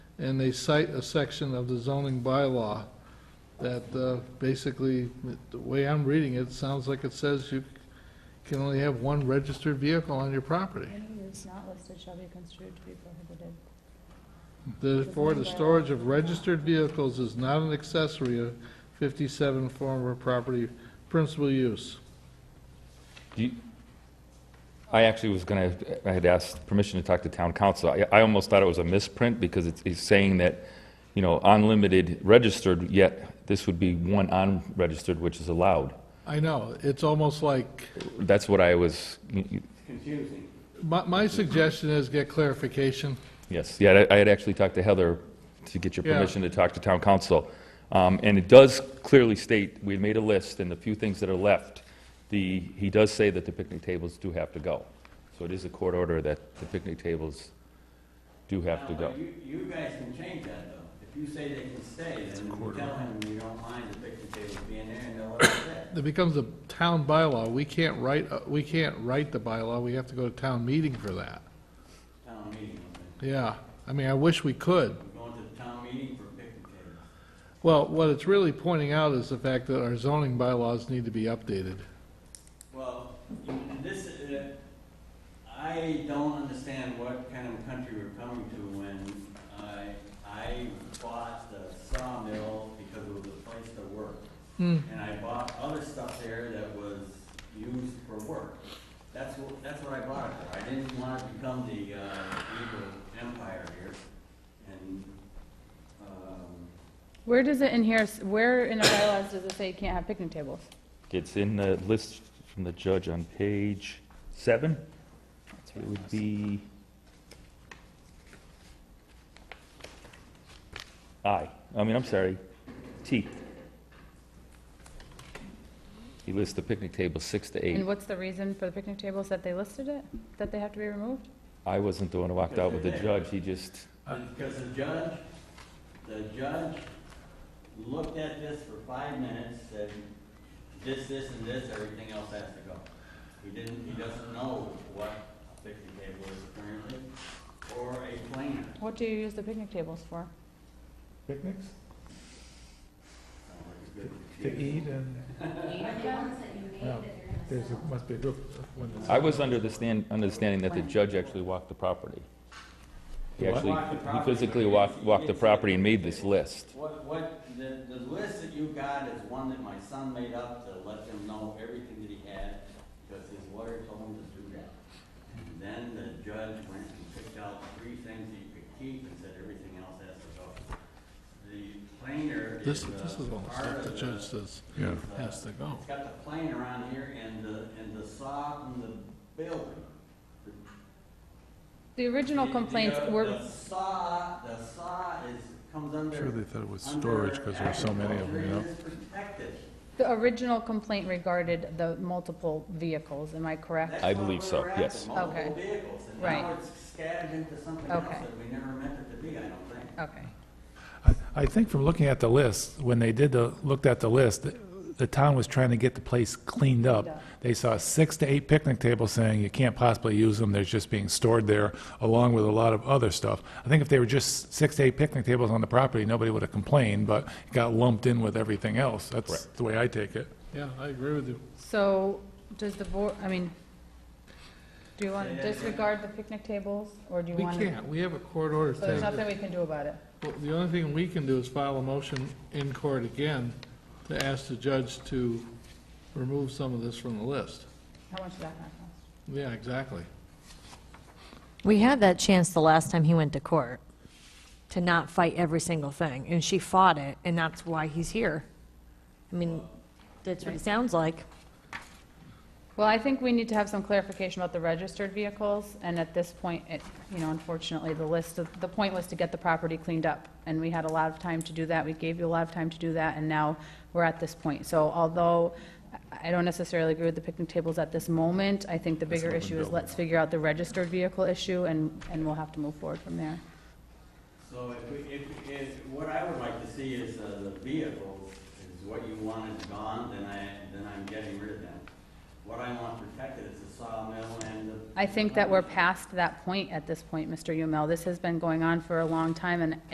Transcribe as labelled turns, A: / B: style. A: and they cite a section of the zoning bylaw that uh, basically, the way I'm reading it, sounds like it says you can only have one registered vehicle on your property.
B: Any use not listed shall be construed to be prohibited.
A: Therefore, the storage of registered vehicles is not an accessory of 57 former property principal use.
C: Do you- I actually was going to, I had asked permission to talk to town council. I- I almost thought it was a misprint because it's it's saying that, you know, unlimited registered, yet this would be one unregistered, which is allowed.
A: I know, it's almost like,
C: That's what I was,
D: confusing.
A: my, my suggestion is get clarification.
C: yes, yeah, I I had actually talked to Heather to get your
A: Yeah.
C: permission to talk to town council. Um, And it does clearly state, we made a list, and the few things that are left, the, he does say that the picnic tables do have to go. So it is a court order that the picnic tables do have to
D: Now,
C: go.
D: but You, you guys can change that though. If you say they can stay, then you tell him you don't mind the picnic table being there and they'll let it stay.
A: It becomes a town bylaw, we can't write, uh, we can't write the bylaw, we have to go to town meeting for that.
D: Town meeting, okay.
A: Yeah, I mean, I wish we could.
D: we're going to the town meeting for picnic tables.
A: Well, what it's really pointing out is the fact that our zoning bylaws need to be updated.
D: Well, you- this, uh, I don't understand what kind of country we're coming to when I, I bought the sawmill because it was a place to work. And I bought other stuff there that was used for work. That's what, that's what I bought it for. I didn't want to become the, uh, evil empire here. And, um,
B: Where does it in here, s- where in our bylaws does it say you can't have picnic tables?
C: It's in the list from the judge on page seven. It would be... I, I mean, I'm sorry, T. He lists the picnic table six to
B: And
C: eight.
B: what's the reason for the picnic tables, that they listed it, that they have to be removed?
C: I wasn't the one who walked out with the judge, he just,
D: Because Um, the judge, the judge looked at this for five minutes, said, this, this, and this, everything else has to go. He didn't, he doesn't know what a picnic table is currently, or a planer.
B: What do you use the picnic tables for?
E: Picnics
D: Sounds like a good
E: to
D: excuse.
E: eat and, well, there's, a- must be a group when it's.
C: I was under the stand, understanding that the judge actually walked the property. He
E: What?
C: actually,
D: Walked the
C: he
D: property,
C: physically
D: but he-
C: walked,
D: he
C: walked the
D: didn't see
C: property
D: it.
C: and made this list.
D: What, what, the, the list that you got is one that my son made up to let them know everything that he had, because his lawyer told him to do that. And then the judge went and picked out three things that you could keep and said everything else has to go. The planer is.
A: This,
D: uh,
A: this is all the
D: part
A: stuff
D: of
A: the judge says
D: Yeah.
A: has to go.
D: It's got the plane around here and the, and the saw and the building.
B: The original
D: The-
B: complaints
D: the- uh,
B: were,
D: The saw, the saw is, comes under.
F: Sure they thought it was storage because there were so many of them, you know?
B: the original complaint regarded the multiple vehicles, am I correct?
C: I believe so, yes.
B: Okay.
D: now
B: Right.
D: it's scattered into something else
B: Okay.
D: that we never meant it to be, I don't think.
B: Okay.
E: I- I think from looking at the list, when they did the, looked at the list, the- the town was trying to get the place cleaned
B: Cleaned up.
E: up. They saw six to eight picnic tables saying you can't possibly use them, they're just being stored there, along with a lot of other stuff. I think if they were just six to eight picnic tables on the property, nobody would have complained, but it got lumped in with everything else. That's
C: Correct.
E: the way I take it.
A: Yeah, I agree with you.
B: So, does the board, I mean, do you want
D: Say
B: to
D: that again.
B: disregard the picnic tables, or do you
A: We
B: want to?
A: can't, we have a court order
B: So there's
A: thing.
B: nothing we can do about it?
A: Well, The only thing we can do is file a motion in court again to ask the judge to remove some of this from the list.
B: How much does that cost?
A: Yeah, exactly.
G: We had that chance the last time he went to court, to not fight every single thing, and she fought it, and that's why he's here. I mean, that's what it sounds like.
B: Well, I think we need to have some clarification about the registered vehicles, and at this point, it, you know, unfortunately, the list, of- the point was to get the property cleaned up, and we had a lot of time to do that, we gave you a lot of time to do that, and now we're at this point. So although I- I don't necessarily agree with the picnic tables at this moment, I think the bigger issue is let's figure out the registered vehicle issue, and, and we'll have to move forward from there.
D: So if, we- if, if, what I would like to see is uh, the vehicles, is what you want is gone, then I, then I'm getting rid of them. What I want protected is the sawmill and the.
B: I think that we're past that point at this point, Mr. Umel. This has been going on for a long time, and